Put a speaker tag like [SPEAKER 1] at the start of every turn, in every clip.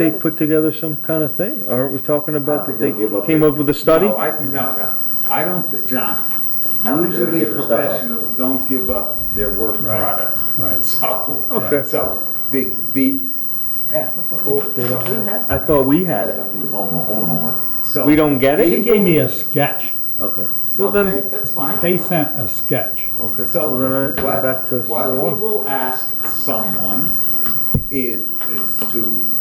[SPEAKER 1] they put together some kind of thing? Aren't we talking about that they
[SPEAKER 2] They gave up
[SPEAKER 1] came up with a study?
[SPEAKER 3] Uh, No, I, no, no. I don't, John,
[SPEAKER 2] I don't think they're
[SPEAKER 3] usually
[SPEAKER 2] giving stuff up.
[SPEAKER 3] professionals don't give up their work
[SPEAKER 4] Right,
[SPEAKER 3] product.
[SPEAKER 4] right.
[SPEAKER 3] So.
[SPEAKER 1] Okay.
[SPEAKER 3] So, the, the, yeah,
[SPEAKER 1] I thought we had
[SPEAKER 2] That's
[SPEAKER 1] it.
[SPEAKER 2] got to do with home, homework.
[SPEAKER 3] so.
[SPEAKER 1] We don't get
[SPEAKER 4] They
[SPEAKER 1] it?
[SPEAKER 4] gave me a sketch.
[SPEAKER 1] Okay, well
[SPEAKER 3] Okay,
[SPEAKER 1] then,
[SPEAKER 3] that's fine.
[SPEAKER 4] They sent a sketch.
[SPEAKER 1] okay,
[SPEAKER 3] So
[SPEAKER 1] well then I,
[SPEAKER 3] what,
[SPEAKER 1] back to
[SPEAKER 3] what
[SPEAKER 1] square
[SPEAKER 3] we
[SPEAKER 1] one.
[SPEAKER 3] will ask someone is, is to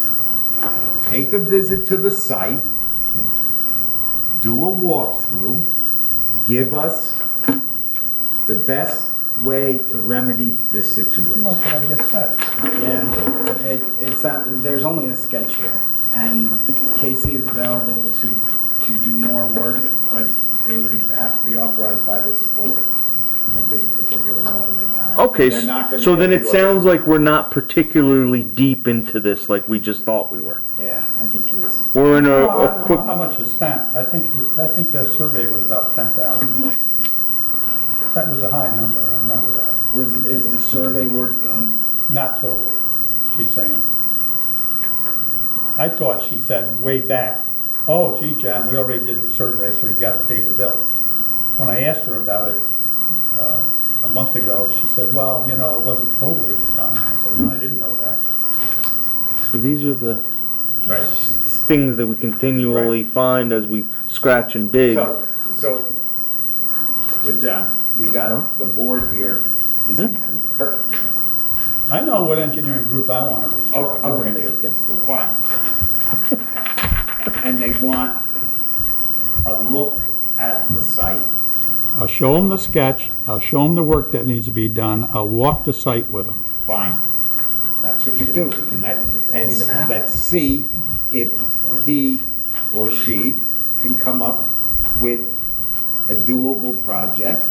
[SPEAKER 3] take a visit to the site, do a walkthrough, give us the best way to remedy this
[SPEAKER 4] That's
[SPEAKER 3] situation.
[SPEAKER 4] what I just said.
[SPEAKER 5] Yeah, it, it's, uh, there's only a sketch here, and Casey is available to, to do more work, but they would have to be authorized by this board at this particular moment in time.
[SPEAKER 1] Okay,
[SPEAKER 3] They're not gonna
[SPEAKER 1] so then
[SPEAKER 3] get
[SPEAKER 1] it
[SPEAKER 3] you a-
[SPEAKER 1] sounds like we're not particularly deep into this like we just thought we were.
[SPEAKER 5] Yeah, I think he was,
[SPEAKER 1] We're in a,
[SPEAKER 4] Well, Oh, I
[SPEAKER 1] a
[SPEAKER 4] don't know
[SPEAKER 1] quick,
[SPEAKER 4] How much is spent? I think, I think the survey was about ten thousand. That was a high number, I remember that.
[SPEAKER 5] was, is the survey work done?
[SPEAKER 4] Not totally, she's saying. I thought she said way back, oh gee, John, we already did the survey, so you gotta pay the bill. When I asked her about it, uh, a month ago, she said, well, you know, it wasn't totally done. I said, no, I didn't know that.
[SPEAKER 1] so these are the
[SPEAKER 3] Right.
[SPEAKER 1] s- things that we continually find as we scratch and dig.
[SPEAKER 3] So, so, with John, we got the board here is
[SPEAKER 1] Hmm?
[SPEAKER 3] incur-
[SPEAKER 4] I know what engineering group I wanna reach.
[SPEAKER 1] Oh,
[SPEAKER 3] Okay,
[SPEAKER 1] me
[SPEAKER 3] okay,
[SPEAKER 1] against the
[SPEAKER 3] fine. And they want a look at the site.
[SPEAKER 4] I'll show them the sketch, I'll show them the work that needs to be done, I'll walk the site with them.
[SPEAKER 3] Fine. That's what you do. And that, and s- let's see if he or she can come up with a doable project.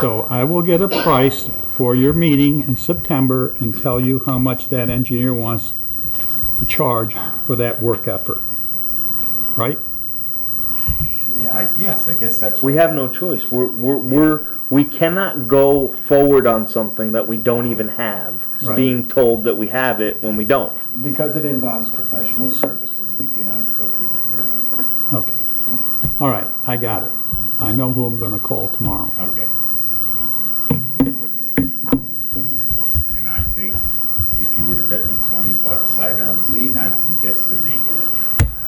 [SPEAKER 4] So I will get a price for your meeting in September and tell you how much that engineer wants to charge for that work effort. Right?
[SPEAKER 3] I, yes, I guess that's.
[SPEAKER 1] We have no choice. We're, we're, we're, we cannot go forward on something that we don't even have,
[SPEAKER 4] Right.
[SPEAKER 1] being told that we have it when we don't.
[SPEAKER 5] Because it involves professional services, we do not have to go through procurement.
[SPEAKER 4] Okay. All right, I got it. I know who I'm gonna call tomorrow.
[SPEAKER 3] Okay. And I think if you were to bet me twenty bucks sight unseen, I can guess the name.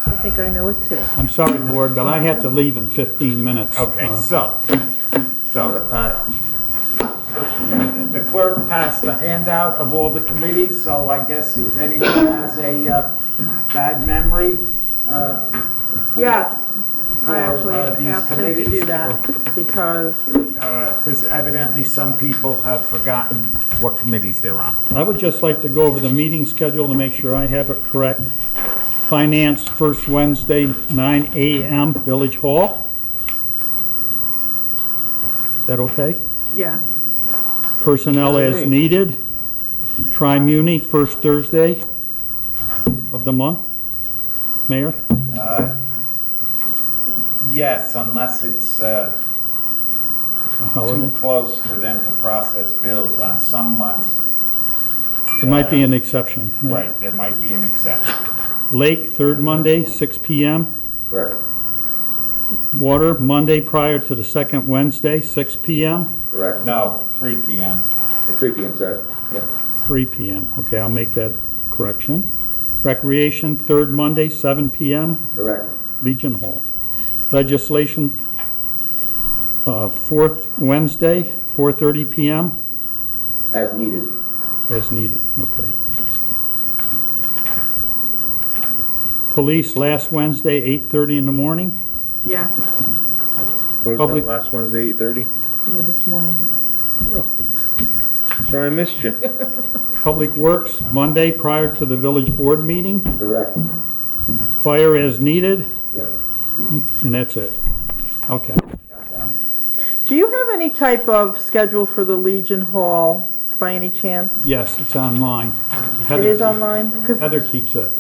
[SPEAKER 6] I think I know it too.
[SPEAKER 4] I'm sorry, board, but I have to leave in 15 minutes.
[SPEAKER 3] Okay,
[SPEAKER 4] Uh,
[SPEAKER 3] so, so, uh, the clerk passed the handout of all the committees, so I guess if anyone has a, uh, bad memory, uh,
[SPEAKER 6] Yes, I
[SPEAKER 3] For,
[SPEAKER 6] actually
[SPEAKER 3] uh, these
[SPEAKER 6] asked him to
[SPEAKER 3] committees?
[SPEAKER 6] do that because,
[SPEAKER 3] because uh, evidently some people have forgotten what committees they're on.
[SPEAKER 4] I would just like to go over the meeting schedule to make sure I have it correct. Finance, first Wednesday, 9 AM, Village Hall. Is that okay?
[SPEAKER 6] yes,
[SPEAKER 4] Personnel as needed. Tri-Muni, first Thursday of the month. Mayor?
[SPEAKER 3] Yes, unless it's, uh,
[SPEAKER 4] a
[SPEAKER 3] too
[SPEAKER 4] holiday.
[SPEAKER 3] close for them to process bills on some months.
[SPEAKER 4] It might be an exception.
[SPEAKER 3] Right, there might be an exception.
[SPEAKER 4] Lake, third Monday, 6 PM.
[SPEAKER 2] Correct,
[SPEAKER 4] Water, Monday prior to the second Wednesday, 6 PM.
[SPEAKER 2] correct.
[SPEAKER 3] No, 3 PM.
[SPEAKER 2] Three P M, sorry. Yeah.
[SPEAKER 4] 3 PM. Okay, I'll make that correction. Recreation, third Monday, 7 PM,
[SPEAKER 2] Correct,
[SPEAKER 4] Legion Hall. Legislation, uh, fourth Wednesday, 4:30 PM,
[SPEAKER 2] as needed.
[SPEAKER 4] as needed, okay. Police, last Wednesday, 8:30 in the morning.
[SPEAKER 6] yes,
[SPEAKER 1] What was
[SPEAKER 4] Public-
[SPEAKER 1] that last Wednesday, eight thirty?
[SPEAKER 6] yeah, this morning.
[SPEAKER 1] Sorry, I missed you.
[SPEAKER 4] Public Works, Monday prior to the village board meeting.
[SPEAKER 2] Correct.
[SPEAKER 4] Fire as needed,
[SPEAKER 2] Yep.
[SPEAKER 4] and that's it. Okay.
[SPEAKER 6] Do you have any type of schedule for the Legion Hall by any chance?
[SPEAKER 4] Yes, it's online.
[SPEAKER 6] It is online? Because,
[SPEAKER 4] Heather keeps it.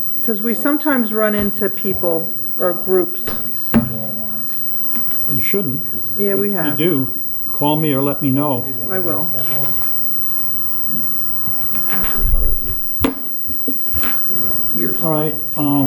[SPEAKER 6] we sometimes run into people or groups.
[SPEAKER 4] You shouldn't.
[SPEAKER 6] Yeah, we
[SPEAKER 4] If you
[SPEAKER 6] have.
[SPEAKER 4] do, call me or let me know.
[SPEAKER 6] I will.
[SPEAKER 7] years.
[SPEAKER 4] All right, um,